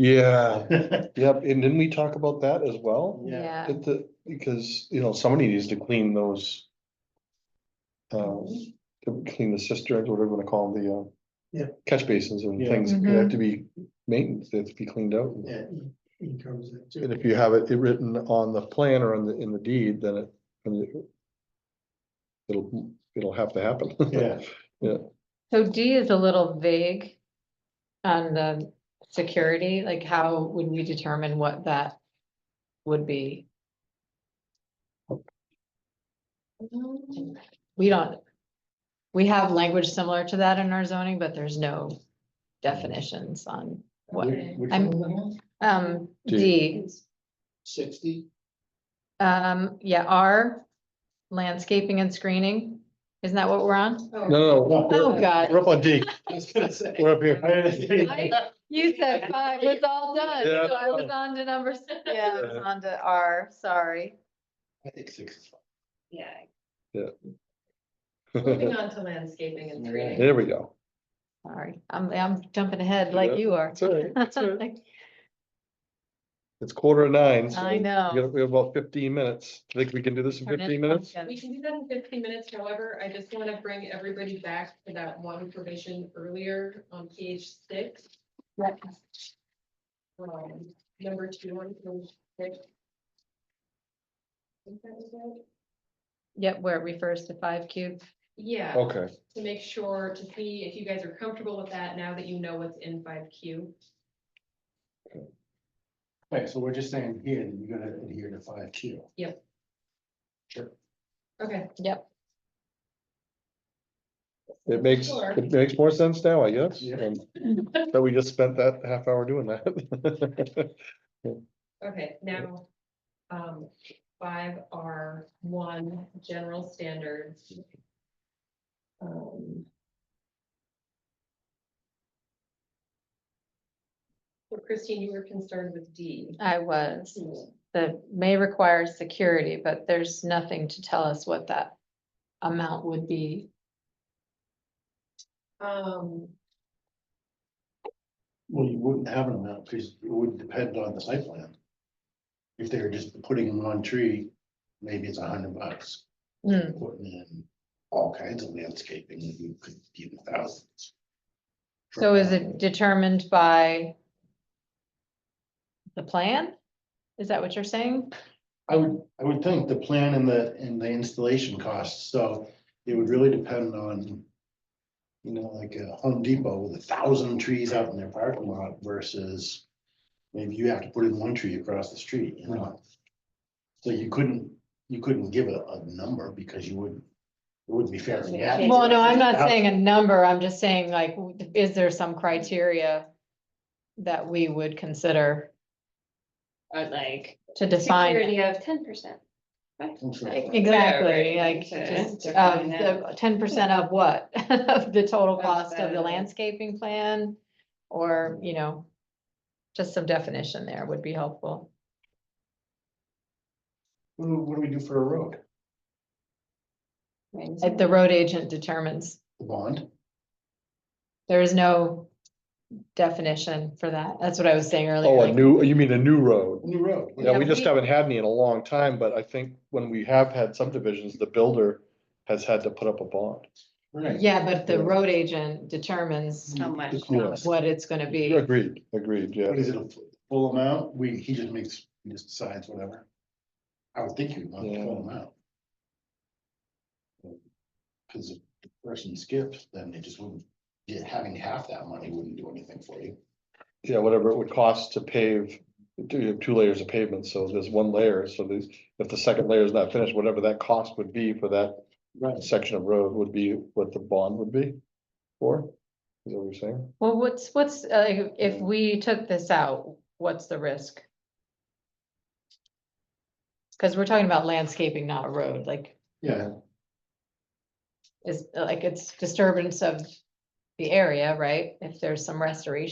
Yeah, yep, and didn't we talk about that as well? Yeah. That the, because, you know, somebody needs to clean those. Uh, to clean the cisterns, whatever you wanna call them, the uh. Yeah. Catch basins and Yeah. things, they Mm-hmm. have to be maintenance, they have to be cleaned out. Yeah, in- in comes it too. And if you have it written on the plan or on the, in the deed, then it, and it- It'll, it'll have to happen. Yeah. So D is a little vague on the security, like how would we determine what that would be? We don't, we have language similar to that in our zoning, but there's no definitions on what, um, D. D. Sixty? Um, yeah, R, landscaping and screening, isn't that what we're on? No, no, no. we're- Oh, God. We're up on D, I was gonna say. we're up here. I- You said five was all done, Yeah. so I was on to number six, I was on to R, sorry. I think six is fine. Yeah, moving There on to landscaping and Yeah. screening. we go. Sorry, I'm, I'm jumping ahead like Yeah. you are. It's all right, it's all right. It's quarter of nine. so I we know. got- We have about fifteen minutes. Think we can do this in Turn it fifteen minutes? pumpkin. Uh, We can do that in fifteen minutes, however, I just wanna bring everybody back to that one provision earlier on page six. Um, number two on page six. Think that was it? Yep, where it refers to five cube. Yeah, Okay, to make sure, to see if you guys are comfortable with that now that you know what's in five Q. Okay, so we're just saying here, that you're gonna adhere to five Q. Yep. Sure. Okay. Yep, it makes, Sure. it makes more sense now, I guess. Yeah. and That we just spent that half hour doing that. Okay, now, um, five R one, general standards. Um, So Christine, you were concerned with D. I was. Mm-hmm. The may require security, but there's nothing to tell us what that amount would be. Um, Well, you wouldn't have an amount, because it would depend on the site plan. If they were just putting in one tree, maybe it's a hundred bucks, Hmm, putting in all kinds of landscaping, you could be in thousands. So is it determined by the plan? Is that what you're saying? I would, I would think the plan and the, and the installation costs, so it would really depend on. You know, like a Home Depot with a thousand trees out in their parking lot versus. Maybe you have to put in one tree across the street, you know? So you couldn't, you couldn't give a, a number because you wouldn't, it wouldn't be fair. to the applicant. Well, no, I'm not saying a number, I'm just saying like, w- is there some criteria that we would consider? Like. To define, Security of ten percent. exactly, Whatever, like, to just of define that. the ten percent of what? Of the total Of cost of the the- landscaping plan, or, you know, just some definition there would be helpful. What do, what do we do for a road? If the road agent determines, The bond? there is no definition for that, that's what I was saying earlier. Oh, a like- new, you mean a new road? New road. Yeah, we Yeah, just we- haven't had any in a long time, but I think when we have had subdivisions, the builder has had to put up a bond. Right. Yeah, but the road agent Hmm. determines How much? Yeah. what it's gonna be. Agreed, agreed, yeah. What is it, a fu- full amount? We, he just makes, he just decides whatever. I would think you would want the full amount. Cause if the person skipped, then they just wouldn't, yeah, having half that money wouldn't do anything for you. Yeah, whatever it would cost to pave, do you have two layers of pavement, so there's one layer, so there's, if the second layer is not finished, whatever that cost would be for that Right. section of road would be what the bond would be for. Is that what you're saying? Well, what's, what's, uh, if we took this out, what's the risk? Cause we're talking about landscaping, not a road, like, Yeah, is, like, it's disturbance of the area, right? If there's some restoration.